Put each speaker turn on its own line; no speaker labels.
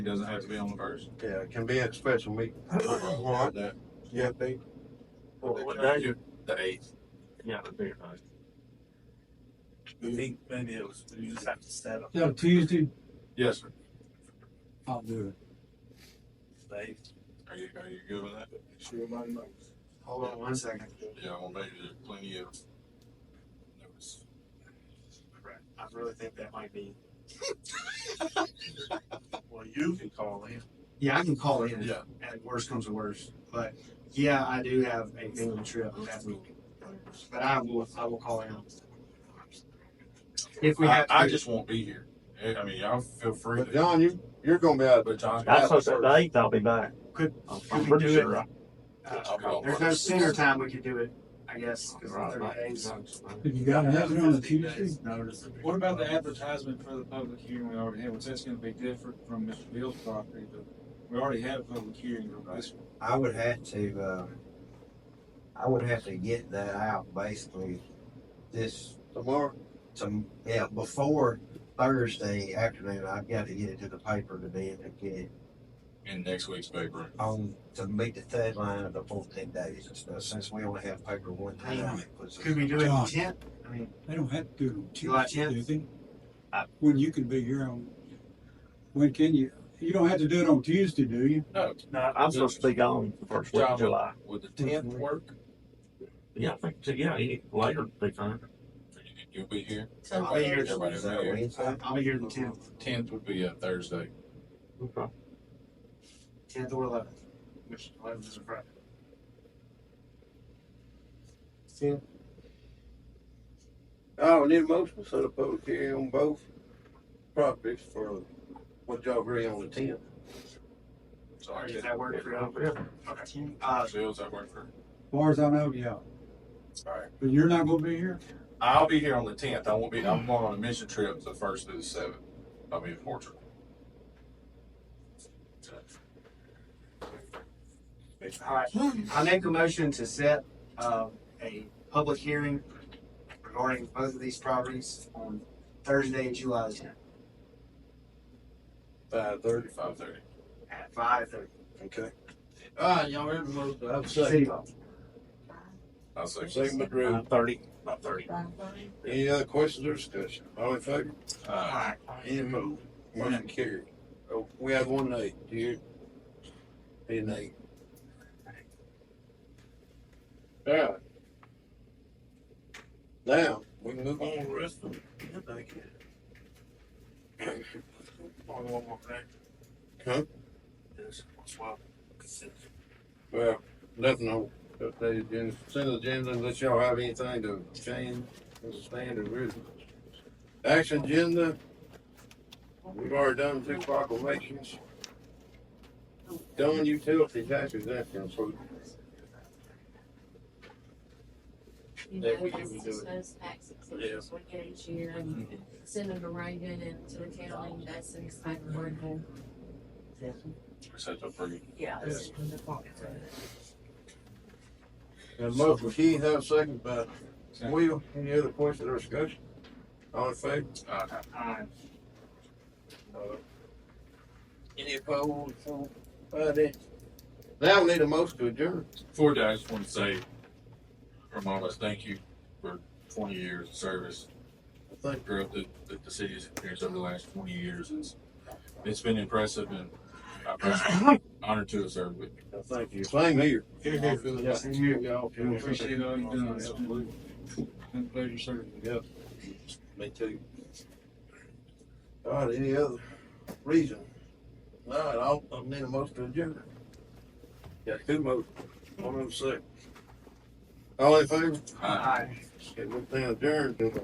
It doesn't have to be on the first.
Yeah, it can be at special meeting.
What? The
Yeah, they.
What, what day?
eighth.
Yeah, the bigger night.
Maybe it was, you just have to set up
No, Tuesday,
Yes, sir.
I'll do it.
today.
Are you, are you good with that?
Hold on one second.
Yeah, well, maybe there's plenty of notice.
I really think that might be. Well, you can call in. Yeah, I can call in.
Yeah.
And worst comes to worst, but yeah, I do have a family trip that week. But I will, I will call in. If we
I,
have. to
I
do-
just won't be here. I I mean, y'all feel free
But
to.
John, you, you're gonna be out,
But John's.
That's what I said, the eighth, I'll be back.
Could-
I'm
could we
pretty
do
sure.
it?
I-
uh,
I'll be on
There's
the
no
first.
sooner time we could do it, I guess, because
Right,
thirty
right.
days.
Have you got nothing on the Tuesday?
What about the advertisement for the public hearing we already had? Was that's gonna be different from Mr. Bill's property, but we already had a public hearing on this. one.
I would have to, uh, I would have to get that out basically this,
tomorrow.
to, yeah, before Thursday afternoon, I've got to get it to the paper to be able to get it
In next week's paper.
on, to meet the deadline of the fourteen days and stuff, since we only have paper one time. it puts us-
Could we do it in
John.
tent? I mean,
They don't have to do it on
July
Tuesday, do
10th?
they?
I-
When you can be here on, when can you, you don't have to do it on Tuesday, do you?
No,
No, I'm supposed to be gone the first week of July.
would the tenth work?
Yeah, I think, so, yeah, any later would be fine.
You'll be here?
So
I'll be here.
Everybody
Is that
will be here.
Wednesday?
I'll be Uh, here the tenth,
Tenth would be a Thursday.
Okay.
tenth or eleventh, which eleventh is a Friday.
Oh, we need a motion to set a public hearing on both properties for what y'all agree on the tenth.
So I
Does
can,
that work for you?
Yeah.
Okay. Uh,
Bill, does that work for?
Far as I know, yeah.
Alright.
But you're not gonna be here?
I'll be here on the tenth. I won't be, I'm going on a mission trip the first through the seventh. I'll be in Portugal.
all right. I make a motion to set, uh, a public hearing regarding both of these properties on Thursday, July the tenth,
Five thirty.
Five thirty.
at five thirty.
Okay.
All right, y'all ready to move
I've
City
second,
Hall.
I'll say.
second by Drew.
Nine thirty, about thirty.
Any other questions or discussion? All in favor?
Uh,
Any opposed? Motion carried. Oh, we have one nay. Do you? Be a nay. Alright. Now, we can move on to the rest of it. Thank you.
Only one more thing.
Huh?
Is, well, consent.
Well, nothing on updated agenda, consent agenda unless y'all have anything to change as a standard written. Action agenda. We've already done two proclamations. Done utility tax exemption, so
You
Yeah,
know,
we
this
can do
is
it.
those tax exemptions we get each year and send them to Reagan and to the county, that's in the paperwork.
we set up for you.
Yeah. that's in the book.
And motion by Keith, have a second by Will. Any other questions or discussion? All in favor?
Uh,
Uh,
Any opposed? Nobody. Now we need a motion to adjourn.
Before that, I just want to say from all of us, thank you for twenty years of service.
I think
growth that, that the city has experienced over the last twenty years. It's, it's been impressive and I'm just honored to have served with you.
I thank you. Same here.
Here,
Yeah, same here, y'all.
We appreciate all you've done. Absolutely. Been a pleasure serving. you.
Me too. All right, any other reason? All right, I'll, I'll need a motion to adjourn. Got two motions. One of them second. All in favor?
Uh,
aye.
Okay, we're adjourned.